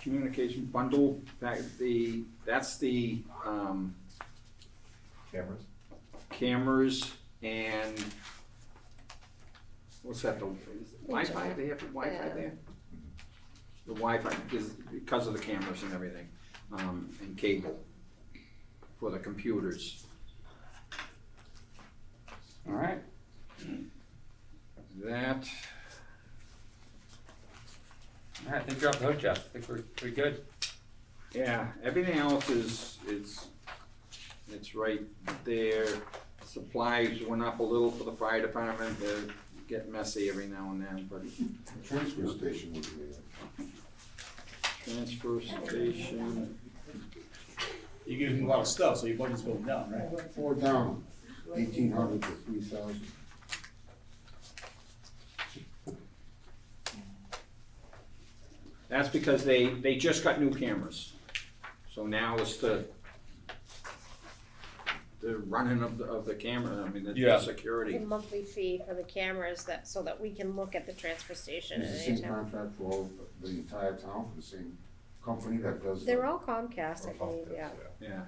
communication bundle, that, the, that's the, um, cameras. cameras and, what's that, the is it Wi-Fi, they have the Wi-Fi Yeah. there? The Wi-Fi, because, because of the cameras and everything, um, and cable for the computers. All right. That, All right, I think you're off the hook, Jeff. I think we're, we're good. Yeah, everything else is, it's, it's right there. Supplies went up a little for the fire department, they get messy every now and then, but Transfer station would be uh, transfer station, You're giving a lot of stuff, so your budget's going down, right? there. Four down, eighteen hundred to three thousand. that's because they, they just got new cameras. So now it's the, the running of the, of the camera, I mean, the- the Yeah. The security. monthly fee for the cameras that, so that we can look at the transfer station at It's the any same time. contract for all, the entire town, for the same company that does. They're the- all Comcast, I believe, yeah. Yeah,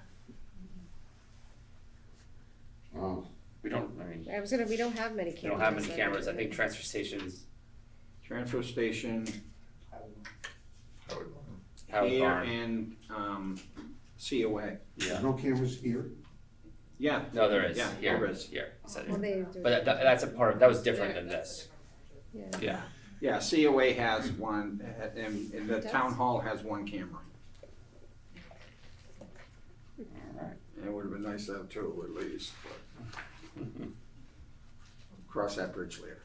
Wow, We don't, I mean, I was gonna, we don't have many cameras. we don't have many so cameras. I think didn't- transfer stations, transfer station, Howard here Barn. and, um, COA. Yeah. there's no cameras here? Yeah, No, there is. Yeah, Here, there is. here. Is that Well, here? they do, But that, that's a part of, that was different than this. yeah. Yeah. Yeah, COA has one, uh, and, and the town hall has one camera. Alright. And It would have been nice to have two at least, but cross that bridge later.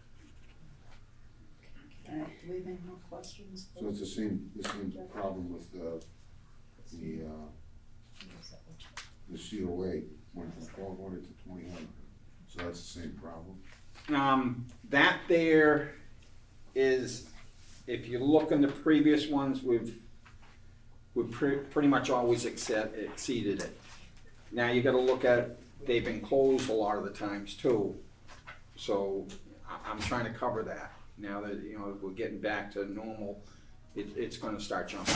Do we have any more questions? So it's the same, the same problem with the, the, uh, the COA, went from twelve hundred to twenty hundred. So that's the same problem. Um, that there is, if you look in the previous ones, we've, we've pre- pretty much always accept, exceeded it. Now you gotta look at, they've been closed a lot of the times too, so I, I'm trying to cover that. Now that, you know, we're getting back to normal, it, it's gonna start jumping.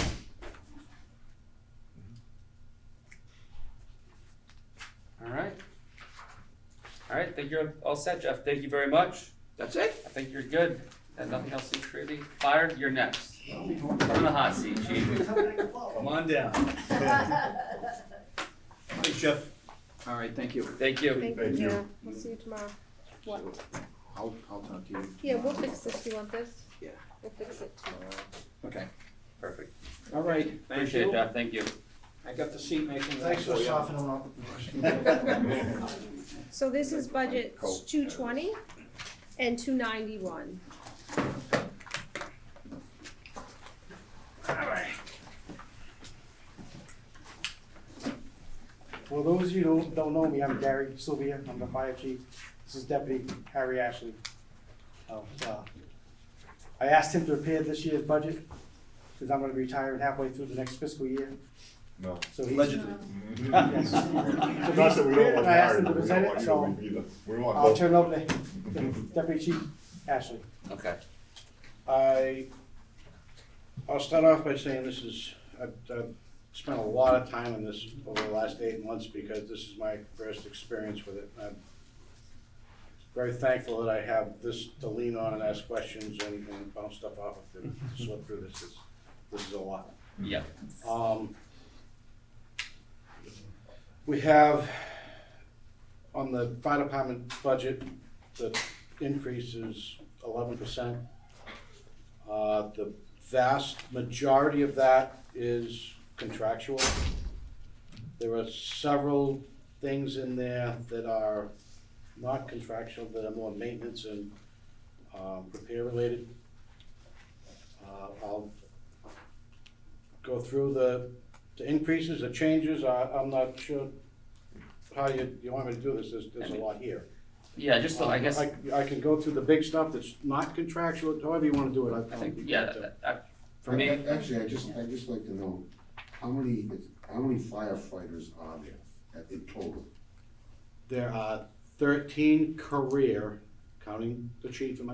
Alright. Alright, I think you're all set, Jeff. Thank you very much. That's it? I think you're good. And nothing else is really fired. You're next. Come in the hot seat, chief. Come on down. Thanks, Jeff. All right, thank you. Thank you. Thank you, we'll see you tomorrow. What? I'll, I'll talk to you. Yeah, we'll fix this, you want this? Yeah. We'll fix it tomorrow. Okay, Perfect. all right, thank Appreciate it, you. Jeff. Thank you. I got the seat making. Thanks for for you. softening up the question. So this is budget two twenty and two ninety-one. For those of you who don't know me, I'm Gary Sylvia, I'm the fire chief. This is Deputy Harry Ashley. Oh, uh, I asked him to prepare this year's budget, because I'm gonna be retiring halfway through the next fiscal year. No. So he's. Um, Allegedly. Yes. Not that we don't want I asked Harry, him to but we don't present it, want you so to be either. We want I'll both. turn it over to Deputy Chief Ashley. Okay. I, I'll start off by saying this is, I've, I've spent a lot of time on this over the last eight months because this is my first experience with it. I'm very thankful that I have this to lean on and ask questions and, and bounce stuff off of to sort through this. This- This is a lot. Yeah. Um, We have on the fire department budget, the increase is eleven percent. Uh, the vast majority of that is contractual. There are several things in there that are not contractual, that are more maintenance and, um, repair related. Uh, I'll go through the, the increases, the changes, I, I'm not sure how you, you want me to do this, there's, there's a lot here. Yeah, just so I guess, I I, I can go through the big stuff that's not contractual, however you wanna do it, I. think, yeah, that- that- for I- me, I- Actually, I just, I just like to know, how many, how many firefighters are there at in total? There are thirteen career, counting the chief and